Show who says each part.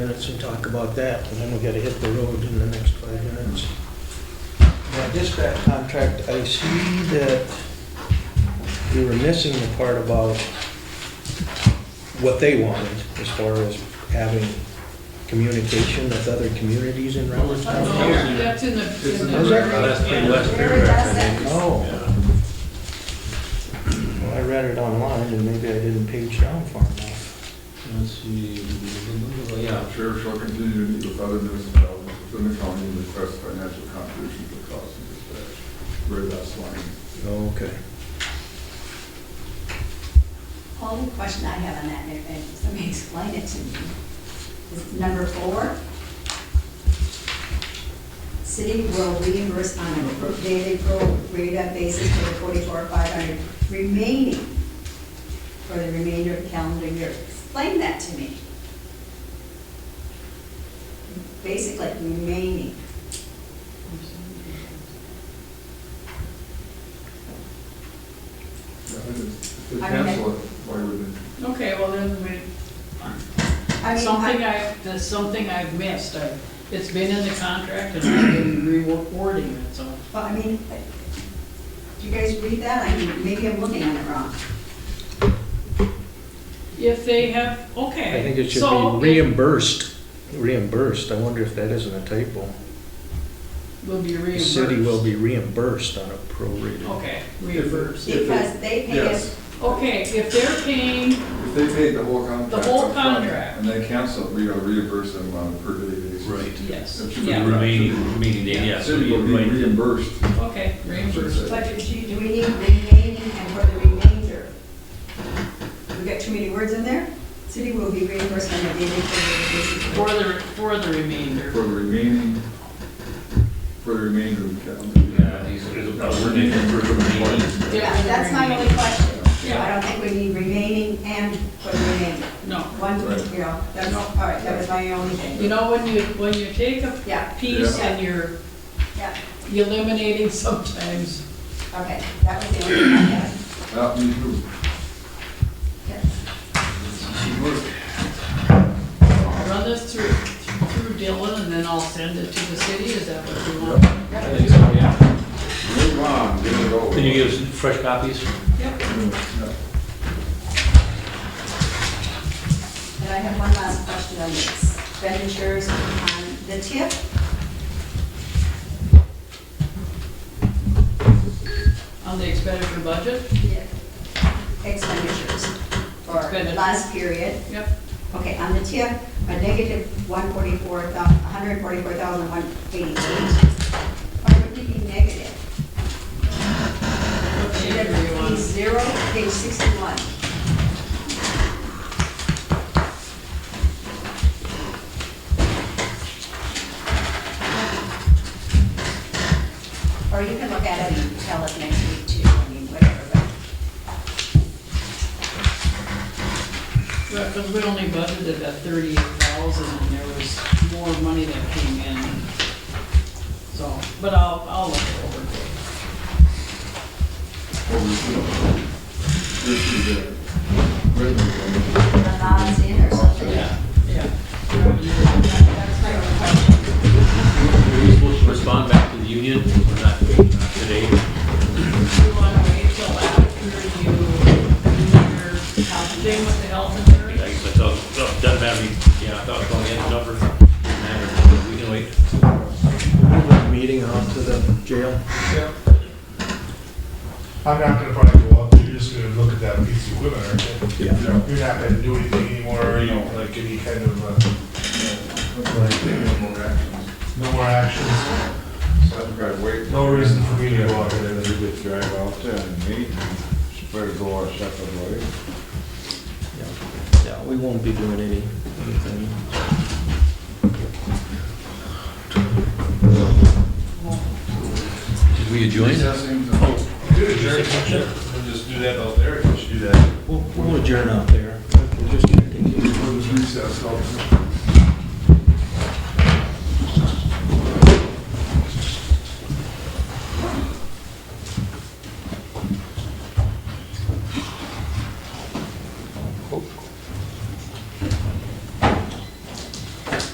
Speaker 1: minutes and talk about that, and then we gotta hit the road in the next five minutes. Now, dispatch contract, I see that we were missing the part about what they wanted as far as having communication with other communities in Rutland County.
Speaker 2: That's in the.
Speaker 3: It's in
Speaker 1: the-
Speaker 3: That's pretty Western
Speaker 4: paragraph, I think.
Speaker 1: Oh, well, I read it online, and maybe I didn't page down far enough.
Speaker 3: Let's see. Yeah,
Speaker 5: Sheriff shall continue to meet with other municipalities within the county and request financial contributions to the cost of dispatch. Very last line.
Speaker 1: Oh, Okay.
Speaker 4: Only question I have on that, and if somebody explain it to me, is number four. City will reimburse on a per daily pro rata basis for the forty-four, five hundred remaining for the remainder of the calendar year. Explain that to me. Basically, remaining.
Speaker 5: Yeah, I mean, If they
Speaker 4: Okay.
Speaker 5: cancel it, why would they?
Speaker 2: Okay, well, there's a minute.
Speaker 4: I mean,
Speaker 2: Something
Speaker 4: I-
Speaker 2: I, there's something I've missed. I- It's been in the contract and I've been rewarding it, so.
Speaker 4: Well, I mean, do you guys read that? I mean, maybe I'm looking at it wrong.
Speaker 2: If they have, okay.
Speaker 1: I think it should
Speaker 2: so
Speaker 1: be reimbursed, reimbursed, I wonder if that isn't a typo.
Speaker 2: it Will be
Speaker 1: The
Speaker 2: reimbursed.
Speaker 1: city will be reimbursed on a prorated.
Speaker 2: Okay, reimbursed.
Speaker 5: If they-
Speaker 4: Because they pay us,
Speaker 5: Yes,
Speaker 2: Okay, if they're paying,
Speaker 5: if they paid the whole contract.
Speaker 2: The whole
Speaker 5: upfront
Speaker 2: contract.
Speaker 5: And they cancel, it, we gotta reimburse them on a per day basis.
Speaker 3: Right.
Speaker 2: yes,
Speaker 5: It should be-
Speaker 2: yeah,
Speaker 3: remaining, meaning, yeah, so
Speaker 5: City will
Speaker 3: you're
Speaker 5: be
Speaker 3: right.
Speaker 5: reimbursed.
Speaker 2: okay, reimbursed.
Speaker 4: but do you- do we need remaining and for the remainder? We got too many words in there? City will be reimbursed on a daily
Speaker 2: For
Speaker 4: basis.
Speaker 2: the, for the remainder.
Speaker 5: For the remaining, for the remainder of the calendar. year.
Speaker 3: Yeah, these are-
Speaker 5: No, we're making for the remaining.
Speaker 4: Yeah, that's my only question.
Speaker 2: Yeah.
Speaker 4: I don't think we need remaining and for the remainder.
Speaker 2: No,
Speaker 4: One,
Speaker 5: Right.
Speaker 4: you know, that's, all right, that was my only
Speaker 2: you
Speaker 4: thing.
Speaker 2: know, when you, when you take a
Speaker 4: Yeah,
Speaker 2: piece
Speaker 4: Yeah.
Speaker 2: and you're
Speaker 4: yeah,
Speaker 2: eliminating sometimes.
Speaker 4: okay, that was the only thing I had.
Speaker 5: Yeah, me too.
Speaker 4: Yeah.
Speaker 5: Should work.
Speaker 2: I'll run this through, through Dylan and then I'll send it to the city, is that what you want?
Speaker 3: I think so, yeah.
Speaker 5: Move on, give it over.
Speaker 3: Can you give us fresh copies?
Speaker 2: Yep.
Speaker 5: Yeah.
Speaker 4: And I have one last question on the expenditures on the TIP.
Speaker 2: On the expenditure budget?
Speaker 4: Expenditures for
Speaker 2: Expenditures.
Speaker 4: last period.
Speaker 2: Yep.
Speaker 4: Okay, on the TIP, a negative 144,188. Why would it be negative? Should
Speaker 2: Whatever
Speaker 4: it
Speaker 2: you
Speaker 4: be
Speaker 2: want.
Speaker 4: zero, page 61? Or you can look at it and tell us next week too, I mean, whatever, but,
Speaker 2: Because we only budgeted at thirty-eight thousand and there was more money that came in. So, but I'll, I'll look it over.
Speaker 5: Well, we should. This is a regular one.
Speaker 4: the bonds in or something.
Speaker 2: Yeah. That's my only question.
Speaker 3: Were you supposed to respond back to the union or not not today?
Speaker 2: Do you want to wait till after you do your thing with the health
Speaker 3: I
Speaker 2: insurance?
Speaker 3: guess I thought, oh, doesn't matter, we- yeah, I thought going in number, doesn't matter, we can wait.
Speaker 1: Move that meeting out to the jail.
Speaker 6: I'm not gonna probably go up, you're just gonna look at that piece of equipment, aren't you?
Speaker 1: Yeah.
Speaker 6: You're not gonna do anything anymore, you know, like any kind of, uh, no more actions, no reason for me to go out there.
Speaker 5: drive out there and meet and better go our separate ways.
Speaker 1: Yeah. Yeah, we won't be doing any, anything.
Speaker 3: Did we adjourn?
Speaker 6: Just do that out there, you should do that.
Speaker 1: We'll, we'll adjourn out there. We'll just check in.
Speaker 5: Recess, I'll-